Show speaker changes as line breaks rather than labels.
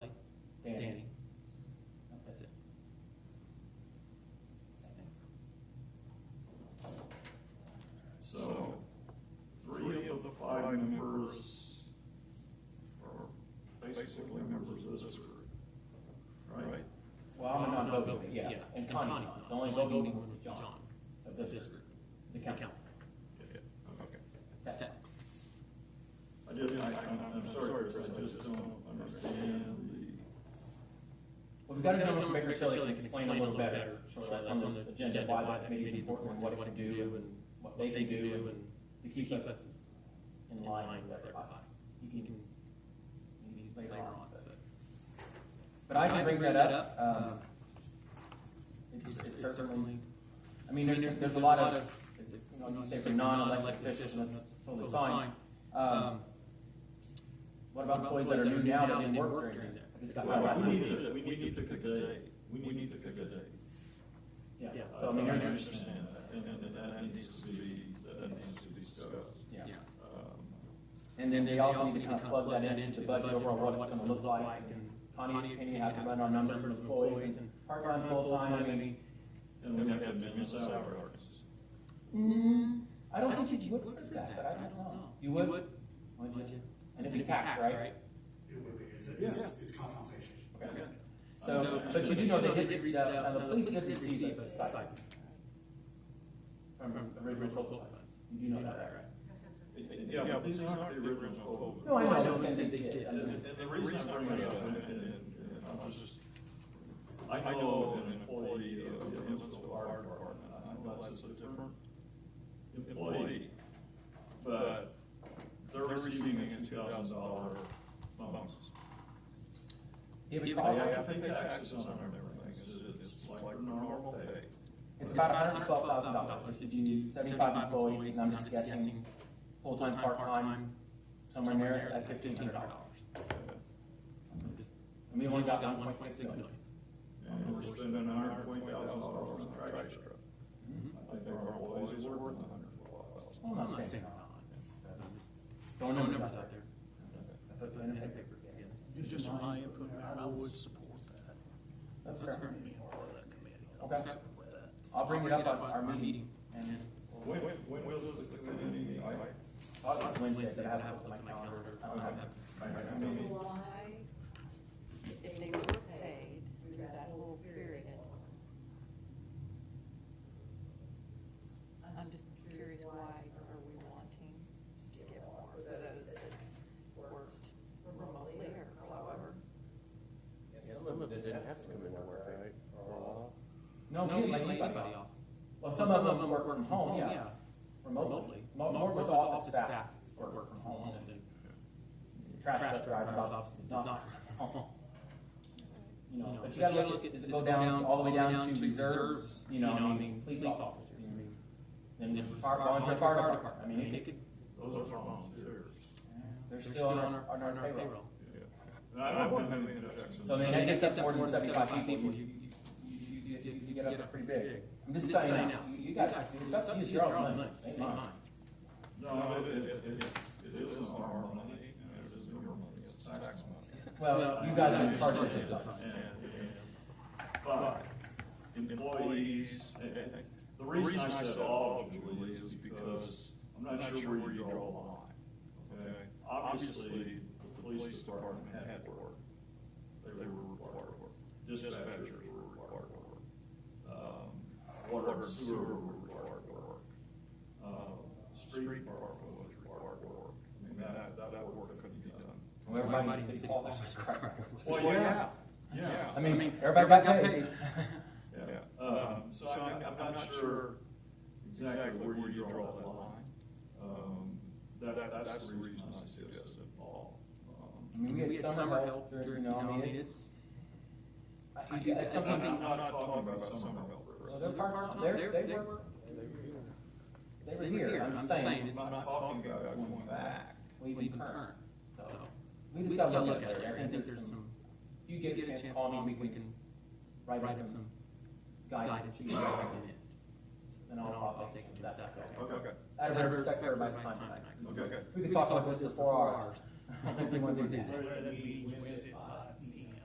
and Connie's not.
The only
There'll
voting
be
one is John of
This
this
group.
group, the council.
Okay.
That-
I just, I, I'm, I'm sorry, Chris, I just don't understand
Well, we've got a gentleman from Baker Tilly that can explain a little better, sure, that's on the agenda, why that committee is important, and what it can do, and what they can do, and to keep us in line with everybody. He can, he's later on, but. But I can bring that up, um, it's, it's certainly, I mean, there's, there's a lot of, you know, you say for non-elected officials, and that's totally fine. Um, what about employees that are new now that didn't work during that? I just got that
the.
last
We
night.
need to, we need to pick a day, we need to pick a day.
Yeah,
Yeah.
so I mean,
I
there's,
understand that, and, and that needs to be, that needs to be discussed.
yeah.
Yeah.
Um,
And then they also need to kind of plug that into the budget overall, what it's gonna look like, and Connie, Penny have to run on numbers of employees, and part-time, full-time, I mean.
And we have to amend the salary ordinance.
Mm, I don't think you would for that, but I don't know. You would? Would you? And it'd be taxed, right?
It would be, it's, a- it's, it's compensation.
Okay.
Okay.
So,
So-
but you do know they did, re-
read
the,
out,
uh, the police did receive
a
a stipend
stipend
from the original
COLA
funds.
funds.
You do know that, right?
Yeah, but these aren't the original
No,
COLA.
Oh, I
I
know,
know,
I'm
they
saying
said
they
they
did.
did.
I
And,
know.
and the reason I bring it up, and, and, and I'm just, I know an employee of the Evansville Fire Department, I know that's a different employee, but they're receiving a two thousand dollar bonus.
It would
Yeah,
They
cost,
have to pay taxes on it and everything, it's, it's like their normal pay.
it's about hundred and twelve thousand dollars if you do seventy-five employees, and I'm just guessing, full-time, part-time, somewhere near that fifteen hundred dollars. And we only got one point six million.
And we're spending a hundred and twenty thousand dollars on a trash truck. I think our employees are worth a hundred and twelve thousand.
Well,
I'm
I'm not saying
not.
not.
It's just
Throwing
throwing
numbers
numbers
out
out
there. I put pen
Putting
and
that
paper
paper
together.
together.
Just my input, Mayor, I would support that.
That's
That's
fair.
fair.
Me and part of that committee. I would
Okay.
support that.
I'll bring it up on our meeting, and then,
When, when was the committee meeting? I-
I'll just Wednesday,
Wednesday,
but I
I
haven't
have
looked at my calendar. I
I
don't have that.
I- I
So
mean,
why, if they were paid through that whole period? I'm just curious, why are we wanting to get more for those that worked remotely or however?
Some of it didn't have to come into work, right?
No, we didn't lay anybody off. Well, some of them work from home, yeah, remotely. Mo- More was office staff work from home, and then trash truck drivers obviously did not work from home. You know, but you gotta look at, does it go down, all the way down to reserves, you know, I mean, police officers, I mean, then the fire, volunteer fire department, I mean, it could,
Those are volunteers.
they're still on our, on our payroll.
And I don't have any objections.
So I mean,
And
that
it
gets up to more than seventy-five people, you, you, you, you, you get up to pretty big. I'm just saying, now, you you guys, it's up to you, it's your own money, ain't mine.
No, it, it, it, it isn't our money, and it isn't your money, it's tax money.
Well, you guys are in charge of
And-
it, though.
and- But employees, and- and the reason I said all employees is because I'm not sure where you draw the line. Okay, obviously, the police department had to work. They were required to work. Dispatchers were required to work. Um, Water and sewer were required to work. Uh, Street department was required to work. I mean, that, that, that work couldn't be done.
Well, Everybody in City Hall is crying.
Well, yeah, yeah.
I mean, everybody got paid.
Yeah, um, so I'm, I'm not sure exactly where you draw that line. Um, that, that's the reason I Um, suggested all.
I mean, we had summer help, during- you know, I mean, it's, I- you- it's
I'm not,
something,
I'm not talking about summer help,
well,
Chris.
they're part, they're, they were, they were here, I'm just saying, it's,
I'm not talking about going back.
we
Even
even current,
current,
so.
so.
We just gotta look at it, I think there's some, if you
You
get a chance, call me, we can write
write
up
up
some
some
guidance to you,
in it.
then I'll, I'll take that, that's okay.
Okay,
Out of respect for everybody's time tonight.
okay.
We could talk about this for four hours. I don't think we wanna do that.
That meeting Wednesday,
Uh,